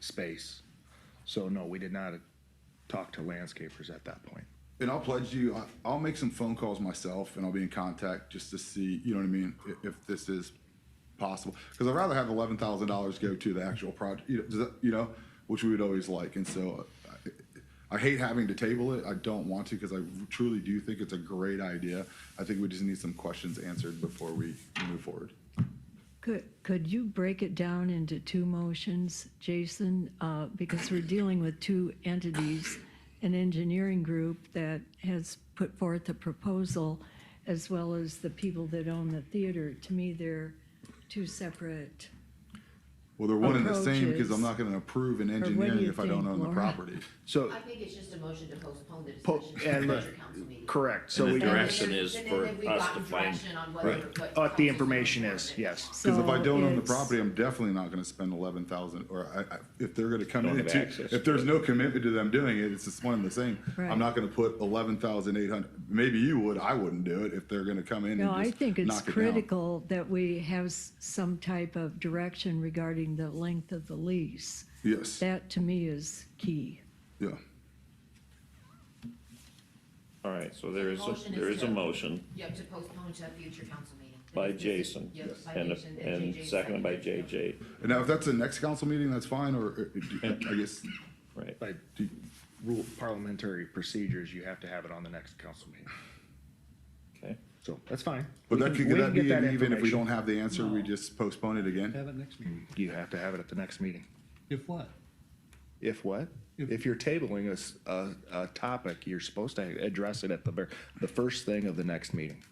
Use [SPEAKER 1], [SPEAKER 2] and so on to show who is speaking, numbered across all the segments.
[SPEAKER 1] space. So no, we did not talk to landscapers at that point.
[SPEAKER 2] And I'll pledge you, I- I'll make some phone calls myself and I'll be in contact just to see, you know what I mean, i- if this is possible. Because I'd rather have eleven thousand dollars go to the actual project, you know, does that- you know, which we would always like. And so uh, I I hate having to table it. I don't want to because I truly do think it's a great idea. I think we just need some questions answered before we move forward.
[SPEAKER 3] Could, could you break it down into two motions, Jason? Uh, Because we're dealing with two entities, an engineering group that has put forth a proposal, as well as the people that own the theater. To me, they're two separate,
[SPEAKER 2] Well, they're one and the same because
[SPEAKER 3] Approaches.
[SPEAKER 2] I'm not going to approve an
[SPEAKER 3] do
[SPEAKER 2] engineering
[SPEAKER 3] you
[SPEAKER 2] if I don't
[SPEAKER 3] think,
[SPEAKER 2] own the
[SPEAKER 3] Laura?
[SPEAKER 2] property.
[SPEAKER 1] So,
[SPEAKER 4] I think it's just a motion to postpone the
[SPEAKER 1] Po-
[SPEAKER 4] decision
[SPEAKER 1] and
[SPEAKER 4] to the
[SPEAKER 1] the-
[SPEAKER 4] future council meeting.
[SPEAKER 1] correct, so
[SPEAKER 5] And the
[SPEAKER 1] we,
[SPEAKER 5] direct-
[SPEAKER 1] uh,
[SPEAKER 5] Direction is
[SPEAKER 4] And
[SPEAKER 5] for
[SPEAKER 4] then we've
[SPEAKER 5] us
[SPEAKER 4] gotten
[SPEAKER 5] to find-
[SPEAKER 4] direction on whether
[SPEAKER 2] Right.
[SPEAKER 4] what
[SPEAKER 1] what the
[SPEAKER 4] council's
[SPEAKER 1] information
[SPEAKER 4] going
[SPEAKER 1] is,
[SPEAKER 4] for.
[SPEAKER 1] yes.
[SPEAKER 2] Because if I
[SPEAKER 3] So
[SPEAKER 2] don't own the
[SPEAKER 3] it's-
[SPEAKER 2] property, I'm definitely not gonna spend eleven thousand, or I, I, if they're gonna come
[SPEAKER 5] Don't
[SPEAKER 2] in,
[SPEAKER 5] have
[SPEAKER 2] to-
[SPEAKER 5] access
[SPEAKER 2] if
[SPEAKER 5] to
[SPEAKER 2] there's
[SPEAKER 5] it.
[SPEAKER 2] no commitment to them doing it, it's just one and the same.
[SPEAKER 3] Right.
[SPEAKER 2] I'm not gonna put eleven thousand eight hundred, maybe you would, I wouldn't do it if they're gonna come in and
[SPEAKER 3] No, I
[SPEAKER 2] just
[SPEAKER 3] think it's
[SPEAKER 2] knock it down.
[SPEAKER 3] critical that we have s- some type of direction regarding the length of the lease.
[SPEAKER 2] Yes,
[SPEAKER 3] That, to me, is key.
[SPEAKER 2] yeah,
[SPEAKER 5] All right, so there is, a
[SPEAKER 4] Motion is
[SPEAKER 5] there is a
[SPEAKER 4] to-
[SPEAKER 5] motion
[SPEAKER 4] Yep, to postpone to a future council meeting.
[SPEAKER 5] by
[SPEAKER 4] This is-
[SPEAKER 5] Jason
[SPEAKER 4] Yep, by
[SPEAKER 5] and,
[SPEAKER 4] Jason,
[SPEAKER 5] and
[SPEAKER 4] JJ
[SPEAKER 5] seconded by
[SPEAKER 4] seconded.
[SPEAKER 5] JJ,
[SPEAKER 2] and now if that's the next council meeting, that's fine, or, or, I guess,
[SPEAKER 5] right?
[SPEAKER 1] by rule parliamentary procedures, you have to have it on the next council meeting.
[SPEAKER 5] Okay,
[SPEAKER 1] So that's fine.
[SPEAKER 2] but
[SPEAKER 1] We
[SPEAKER 2] that
[SPEAKER 1] can-
[SPEAKER 2] could,
[SPEAKER 1] we
[SPEAKER 2] could
[SPEAKER 1] can
[SPEAKER 2] that
[SPEAKER 1] get
[SPEAKER 2] be an even if we
[SPEAKER 1] information.
[SPEAKER 2] don't have the answer, we just postpone it again?
[SPEAKER 6] Have it next meeting.
[SPEAKER 1] You have to have it at the next meeting.
[SPEAKER 6] If what?
[SPEAKER 1] If what? If you're tabling a s- a, a topic, you're supposed to address it at the ver, the first thing of the next meeting.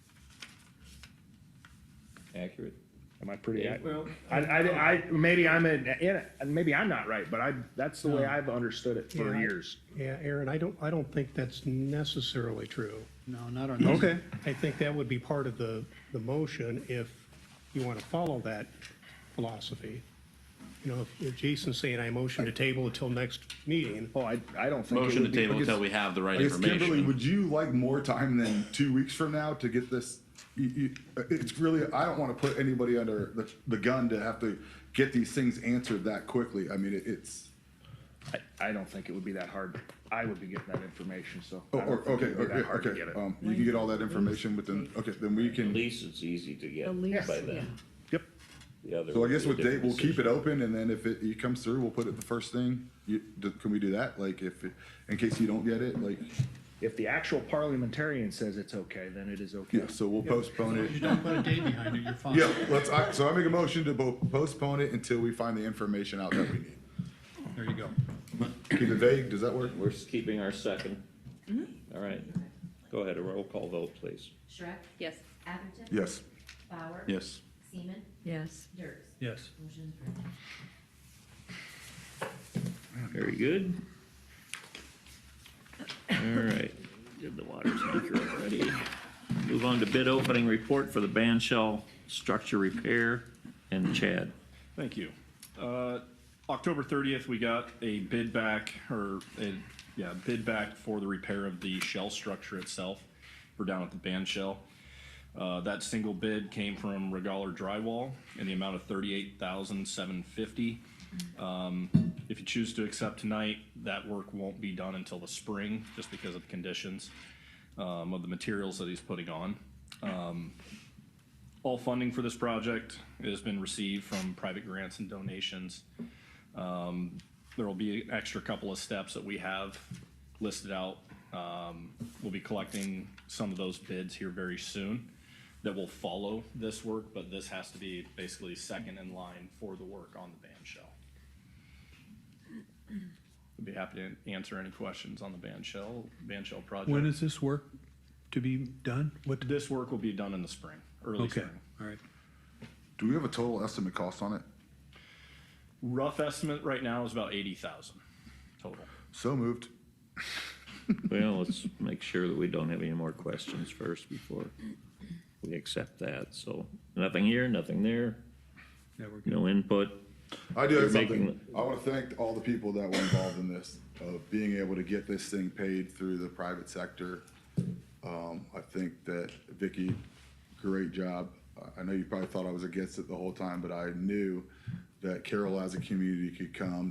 [SPEAKER 5] accurate.
[SPEAKER 1] Am I pretty? ac-
[SPEAKER 6] Well-
[SPEAKER 1] I, I, I, maybe I'm in, in, it, and maybe I'm not right, but I, that's the way
[SPEAKER 7] No.
[SPEAKER 1] I've understood it for
[SPEAKER 7] Yeah.
[SPEAKER 1] years.
[SPEAKER 7] Yeah, Aaron, I don't, I don't think that's necessarily true.
[SPEAKER 6] No, not on this.
[SPEAKER 2] Okay,
[SPEAKER 7] I think that would be part of the, the motion if you want to follow that philosophy. You know, if- if Jason's saying I motion to table until next meeting,
[SPEAKER 1] Oh, I, I don't think. it
[SPEAKER 8] Motion to
[SPEAKER 1] would be-
[SPEAKER 8] table
[SPEAKER 2] I guess-
[SPEAKER 8] until we have the right
[SPEAKER 2] I guess Kimberly,
[SPEAKER 8] information.
[SPEAKER 2] would you like more time than two weeks from now to get this? You, you, it's really, I don't want to put anybody under the, the gun to have to get these things answered that quickly. I mean, it, it's,
[SPEAKER 1] I, I don't think it would be that hard. I would be getting that information, so. I
[SPEAKER 2] oh,
[SPEAKER 1] don't
[SPEAKER 2] or,
[SPEAKER 1] think
[SPEAKER 2] okay,
[SPEAKER 1] it would be that hard
[SPEAKER 2] okay,
[SPEAKER 1] to
[SPEAKER 2] okay.
[SPEAKER 1] get it.
[SPEAKER 2] Um, you can get all that information within, okay, then we
[SPEAKER 5] At
[SPEAKER 2] can,
[SPEAKER 5] least it's easy to get
[SPEAKER 3] The lease,
[SPEAKER 5] by
[SPEAKER 3] yeah.
[SPEAKER 5] then.
[SPEAKER 1] Yep,
[SPEAKER 5] The other.
[SPEAKER 2] so I
[SPEAKER 5] would
[SPEAKER 2] guess
[SPEAKER 5] be a
[SPEAKER 2] with date,
[SPEAKER 5] different
[SPEAKER 2] we'll keep it
[SPEAKER 5] decision.
[SPEAKER 2] open and then if it, it comes through, we'll put it the first thing. You, d- can we do that? Like if, it- in case you don't get it, like,
[SPEAKER 1] if the actual parliamentarian says it's okay, then it is okay.
[SPEAKER 2] yeah, so we'll postpone it.
[SPEAKER 6] You don't put a date behind it, you're fine.
[SPEAKER 2] Yeah, let's, I- so I make a motion to bo- postpone it until we find the information out that we need.
[SPEAKER 6] There you go.
[SPEAKER 2] Keep it vague, does that work?
[SPEAKER 5] We're s- keeping our second.
[SPEAKER 4] Mm-hmm.
[SPEAKER 5] All right, go ahead, a roll call vote, please.
[SPEAKER 4] Shrek?
[SPEAKER 9] Yes.
[SPEAKER 4] Atherton?
[SPEAKER 2] Yes.
[SPEAKER 4] Bauer?
[SPEAKER 8] Yes.
[SPEAKER 4] Seaman?
[SPEAKER 3] Yes.
[SPEAKER 4] Dirks?
[SPEAKER 6] Yes.
[SPEAKER 4] Motion approved.
[SPEAKER 5] Very good. All right, did the water tanker already. Move on to bid opening report for the band shell structure repair and Chad.
[SPEAKER 10] Thank you. Uh, October 30th, we got a bid back, or a, yeah, bid back for the repair of the shell structure itself. We're down at the band shell. Uh, that single bid came from Regaler Drywall in the amount of 38750 Um If you choose to accept tonight, that work won't be done until the spring, just because of the conditions um, of the materials that he's putting on. All funding for this project has been received from private grants and donations. Um, There will be an extra couple of steps that we have listed out. Um, We'll be collecting some of those bids here very soon that will follow this work, but this has to be basically second in line for the work on the band shell. I'd be happy to answer any questions on the band shell, band shell project.
[SPEAKER 6] When is this work to be done? What,
[SPEAKER 10] This work will be done in the spring, early
[SPEAKER 6] okay,
[SPEAKER 10] spring.
[SPEAKER 6] all right.
[SPEAKER 2] Do we have a total estimate cost on it?
[SPEAKER 10] Rough estimate right now is about eighty thousand total.
[SPEAKER 2] So moved.
[SPEAKER 5] Well, let's make sure that we don't have any more questions first before we accept that, so nothing here, nothing there,
[SPEAKER 6] Yeah, we're good.
[SPEAKER 5] no input.
[SPEAKER 2] I do have
[SPEAKER 5] You're making-
[SPEAKER 2] something. I want to thank all the people that were involved in this, of being able to get this thing paid through the private sector. Um, I think that Vicky, great job. I- I know you probably thought I was against it the whole time, but I knew that Carol as a community could come